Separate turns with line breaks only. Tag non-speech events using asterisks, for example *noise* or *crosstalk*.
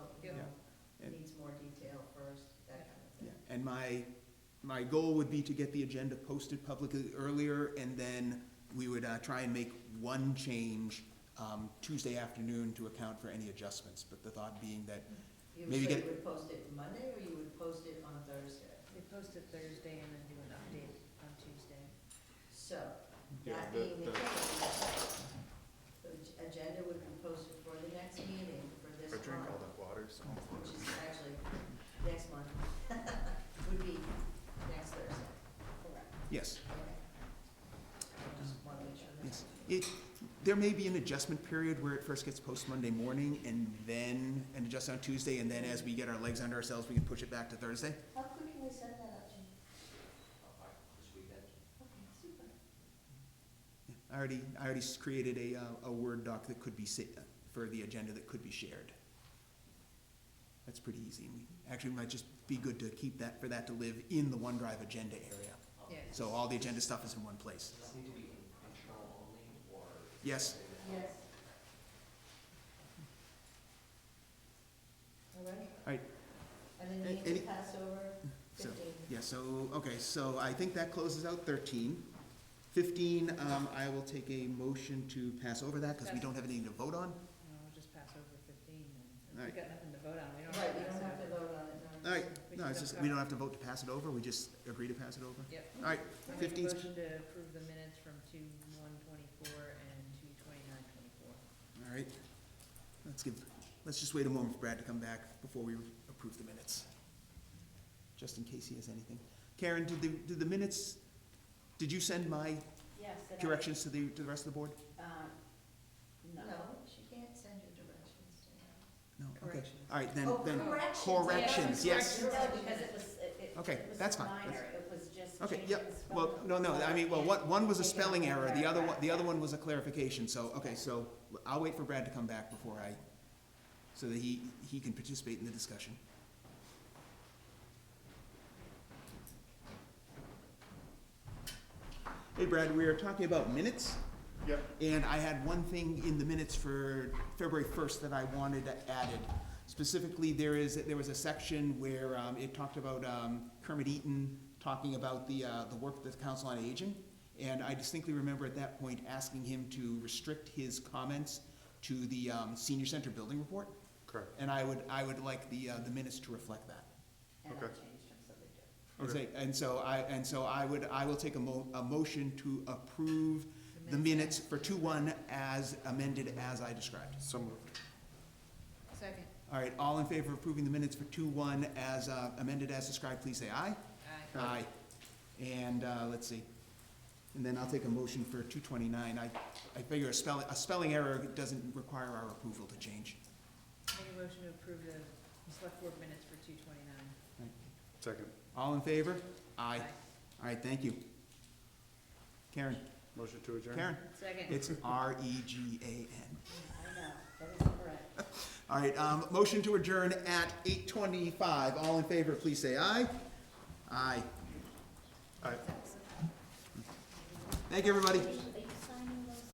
And my, my goal would be to get the agenda posted publicly earlier, and then we would uh, try and make one change um, Tuesday afternoon to account for any adjustments. But the thought being that,
You
Maybe
would say
get-
you would post it Monday, or you would post it on Thursday?
They post it Thursday and then do an update on Tuesday.
So,
Yeah,
that
the-
being the
the-
case, the ag- agenda would be posted for the next meeting for this
Or drink all
month,
that water, so.
which is actually next month, *laughs* would be next Thursday. Correct.
yes,
Okay. I just want to make sure that's.
yes. It, there may be an adjustment period where it first gets posted Monday morning, and then, and adjust on Tuesday, and then as we get our legs under ourselves, we can push it back to Thursday.
How quick can we send that up, Jim? Okay, super.
I already, I already s- created a, uh, a Word doc that could be, sa- for the agenda that could be shared. That's pretty easy. We- Actually, it might just be good to keep that, for that to live in the OneDrive agenda area.
Yes.
So all the agenda stuff is in one place.
Does this need to be internal only, or?
Yes,
Yes. All right,
all right,
and
A-
then we
any-
need to pass over
so,
fifteen.
yeah, so, okay, so I think that closes out thirteen. Fifteen, um, I will take a motion to pass over that, because we don't have anything to vote on.
No, we'll just pass over fifteen and
Alright.
we've got nothing to vote on. We don't
Right,
have
you
to
don't have
pass
to
it over.
vote on it, no.
All right, no, it's just, we don't have to vote to pass it over, we just agree to pass it over.
Yep.
All right,
I make a
fifteen's
motion to approve the minutes from two one twenty-four and two twenty-nine twenty-four.
All right, let's give, let's just wait a moment for Brad to come back before we approve the minutes, just in case he has anything. Karen, did the, did the minutes, did you send my
Yes. and I-
corrections to the, to the rest of the board?
um, No.
No, she can't send your directions to him.
No, okay,
Corrections.
all right, then,
Oh,
then,
corrections,
corrections, yes.
No, because it was, it- it
Okay,
it was
that's fine.
minor, it was just
Okay,
changing
yep,
the spelling.
well, no, no, I mean, well,
And-
one, one was a
Taking out
spelling
the
error, the other one, the other
paragraph.
one was a clarification, so, okay, so I'll wait for Brad to come back before I, so that he, he can participate in the discussion. Hey Brad, we are talking about minutes,
Yep,
and I had one thing in the minutes for February first that I wanted added. Specifically, there is, there was a section where, um, it talked about, um, Kermit Eaton talking about the, uh, the work of the Council on Aging. And I distinctly remember at that point asking him to restrict his comments to the, um, senior center building report.
correct.
And I would, I would like the, uh, the minutes to reflect that.
And I
Okay.
changed them so they do.
And
Okay.
say- And so I, and so I would, I will take a mo, a motion to approve the minutes for two one as amended as I described.
So moved.
Second.
All right, all in favor of approving the minutes for two one as uh, amended as described, please say aye.
Aye.
Aye. And, uh, let's see. And then I'll take a motion for two twenty-nine. I, I figure a spelling, a spelling error doesn't require our approval to change.
Make a motion to approve the select board minutes for two twenty-nine.
Second.
All in favor? Aye. All right, thank you. Karen,
Motion to adjourn?
Karen,
Second.
it's R E G A N.
I know, that is correct.
All right, um, motion to adjourn at eight twenty-five. All in favor, please say aye. Aye.
Aye.
Thank you, everybody.
Are you